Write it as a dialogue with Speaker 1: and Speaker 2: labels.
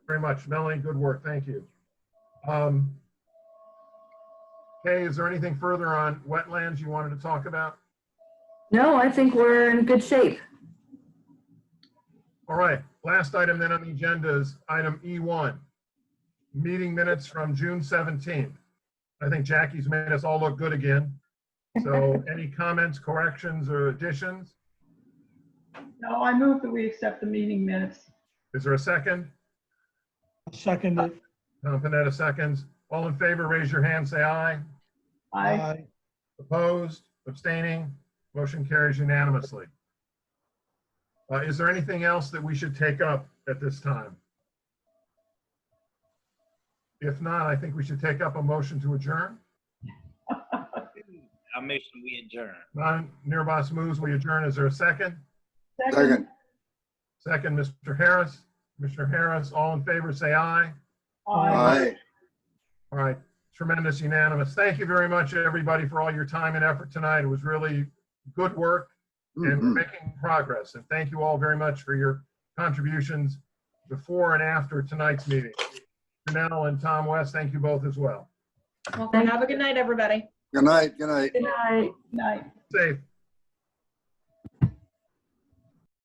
Speaker 1: very much. Melanie, good work. Thank you. Um, Kay, is there anything further on wetlands you wanted to talk about?
Speaker 2: No, I think we're in good shape.
Speaker 1: All right, last item then on the agenda is item E1. Meeting minutes from June 17th. I think Jackie's made us all look good again. So any comments, corrections, or additions?
Speaker 3: No, I move that we accept the meeting minutes.
Speaker 1: Is there a second?
Speaker 4: Second it.
Speaker 1: Tom Panetta seconds. All in favor, raise your hand, say aye.
Speaker 3: I,
Speaker 1: Opposed, abstaining, motion carries unanimously. Uh, Is there anything else that we should take up at this time? If not, I think we should take up a motion to adjourn.
Speaker 5: I'll make sure we adjourn.
Speaker 1: Non-Nirbas moves, we adjourn. Is there a second?
Speaker 6: Second,
Speaker 1: Second, Mr. Harris. Mr. Harris, all in favor, say aye.
Speaker 3: I,
Speaker 6: aye.
Speaker 1: All right, tremendous unanimous. Thank you very much, everybody, for all your time and effort tonight. It was really good work. and we're
Speaker 6: Mhm.
Speaker 1: making progress. And thank you all very much for your contributions before and after tonight's meeting. Janelle and Tom West, thank you both as well.
Speaker 7: Well, have a good night, everybody.
Speaker 6: Good night, good night.
Speaker 2: Good night.
Speaker 3: night.
Speaker 1: Safe.